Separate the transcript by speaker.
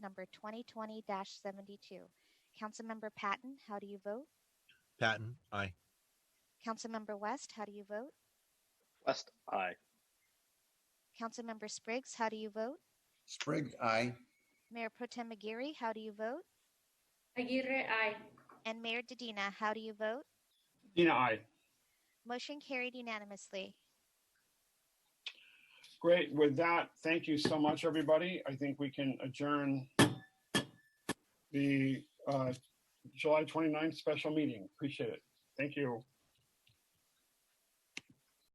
Speaker 1: number 2020-72. Councilmember Patton, how do you vote?
Speaker 2: Patton, aye.
Speaker 1: Councilmember West, how do you vote?
Speaker 3: West, aye.
Speaker 1: Councilmember Spriggs, how do you vote?
Speaker 4: Spriggs, aye.
Speaker 1: Mayor Pro Tem Aguirre, how do you vote?
Speaker 5: Aguirre, aye.
Speaker 1: And Mayor Dedina, how do you vote?
Speaker 6: Dina, aye.
Speaker 1: Motion carried unanimously.
Speaker 6: Great. With that, thank you so much, everybody. I think we can adjourn the uh, July 29th special meeting. Appreciate it. Thank you.